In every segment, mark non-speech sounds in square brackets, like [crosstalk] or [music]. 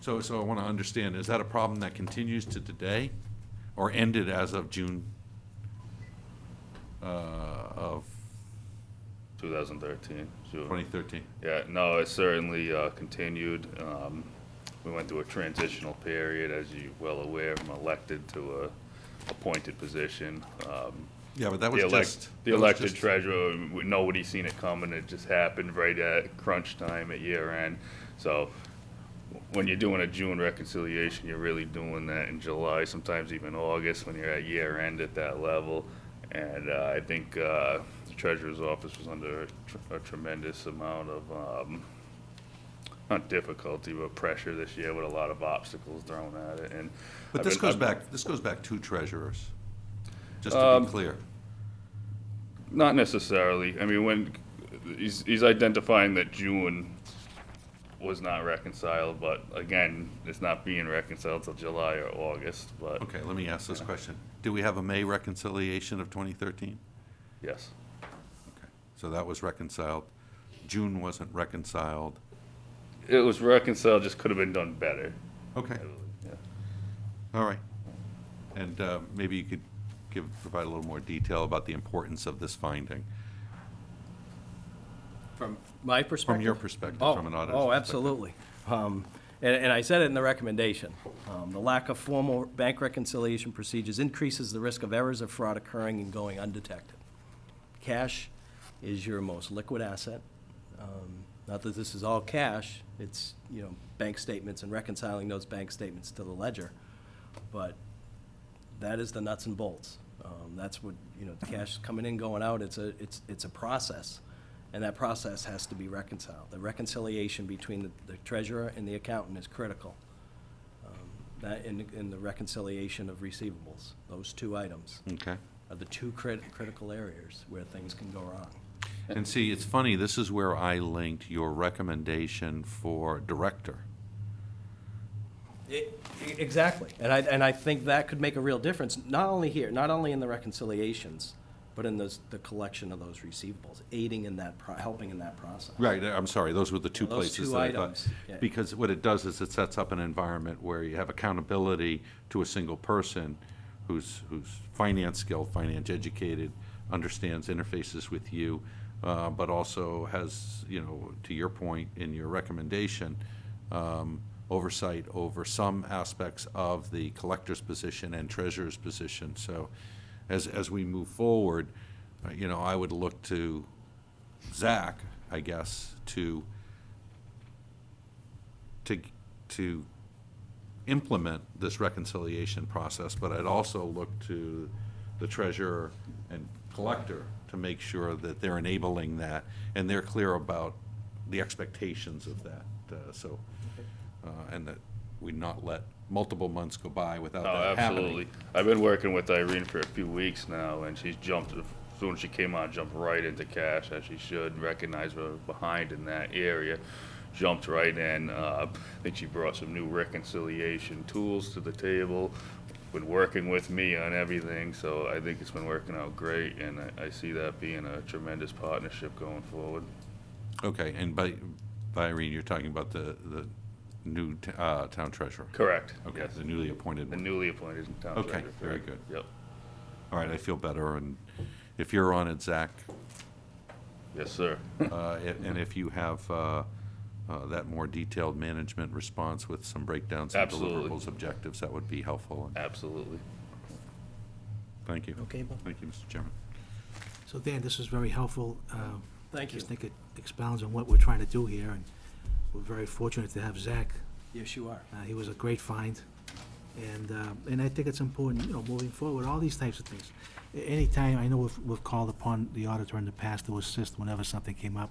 So, so I want to understand, is that a problem that continues to today or ended as of June uh, of 2013. June. 2013? Yeah, no, it certainly uh, continued. Um, We went through a transitional period, as you're well aware, from elected to a appointed position. Um, Yeah, but that was The just. elect, the that was elected just- treasurer, we- nobody seen it coming, it just happened right at crunch time at year end. So when you're doing a June reconciliation, you're really doing that in July, sometimes even August, when you're at year end at that level. And uh, I think uh, the treasurer's office was under a tr- a tremendous amount of, um, not difficulty, but pressure this year with a lot of obstacles thrown at it, and. But I've this been- goes I've- back, this goes back two treasurers, just to Um, be clear. Not necessarily. I mean, when, he's, he's identifying that June was not reconciled, but again, it's not being reconciled till July or August, but Okay, let me ask this question. Do we have a May reconciliation of 2013? yes. Okay, So that was reconciled. June wasn't reconciled. It was reconciled, just could have been done better. Okay, Yeah. all right. And uh, maybe you could give, provide a little more detail about the importance of this finding, From my perspective? from your perspective, Oh, from an auditor's. Oh, perspective. absolutely. Um, And and I said it in the recommendation. Um, The lack of formal bank reconciliation procedures increases the risk of errors of fraud occurring and going undetected. Cash is your most liquid asset. Um, Not that this is all cash, it's, you know, bank statements and reconciling those bank statements to the ledger. But that is the nuts and bolts. Um, That's what, you know, cash coming in, going out, it's a, it's, it's a process, and that process has to be reconciled. The reconciliation between the- the treasurer and the accountant is critical. Um, That, and, and the reconciliation of receivables, those two items Okay. are the two crit- critical areas where things can go wrong. And see, it's funny, this is where I linked your recommendation for director. E, Exactly. And I, and I think that could make a real difference, not only here, not only in the reconciliations, but in those, the collection of those receivables, aiding in that, pro- helping in that process. Right, I'm sorry, those were the two Those places two that I thought. items, yeah. Because what it does is it sets up an environment where you have accountability to a single person who's, who's finance skilled, finance educated, understands interfaces with you, uh, but also has, you know, to your point in your recommendation, um, oversight over some aspects of the collector's position and treasurer's position. So as, as we move forward, uh, you know, I would look to Zach, I guess, to, to, to implement this reconciliation process, but I'd also look to the treasurer and collector to make sure that they're enabling that, and they're clear about the expectations of that, uh, so, uh, and that we not let multiple months go by without No, that happening. Oh, absolutely. I've been working with Irene for a few weeks now, and she's jumped, as soon as she came on, jumped right into cash, as she should, recognize we're behind in that area, jumped right in. Uh, I think she brought some new reconciliation tools to the table, been working with me on everything, so I think it's been working out great, and I, I see that being a tremendous partnership going forward. Okay, and by, by Irene, you're talking about the, the new t- uh, town treasurer? Correct, Okay, yes. the newly appointed The one. newly appointed town Okay, treasurer. very correct. good. Yep, All right, I feel better, and if you're on it, Zach, yes, sir. uh, and and if you have uh, uh, that more detailed management response with some breakdowns and Absolutely. deliverables, objectives, that would be helpful, and Absolutely. thank you. Okay, Bob. Thank you, Mr. Chairman. So Dan, this is very helpful. Um, Thank I you. just think it expounds on what we're trying to do here, and we're very fortunate to have Zach. Yes, you are. Uh, He was a great find, and, uh, and I think it's important, you know, moving forward, all these types of things. A- Anytime, I know we've, we've called upon the auditor in the past to assist whenever something came up,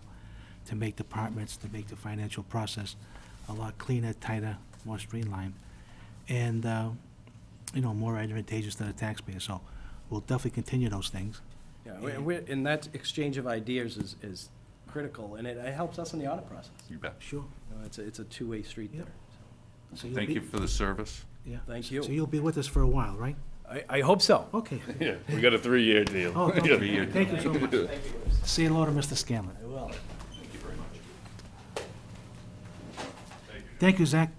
to make departments, to make the financial process a lot cleaner, tighter, more streamlined, and, uh, you know, more advantageous to the taxpayer. So we'll definitely continue those things. Yeah, we- we're- and that exchange of ideas is, is critical, and it it helps us in the audit process. You bet. Sure. You know, It's a, it's a two-way street Yep. there. So you'll Thank be- you for the service. Yeah. Thank So you. you'll be with us for a while, right? I, I hope so. [laughs] Okay. Yeah, we got a three-year deal. Oh, [laughs] thank Yeah. you Thank you so much. Say hello to Mr. Scanlon. I will. Thank you, Zach.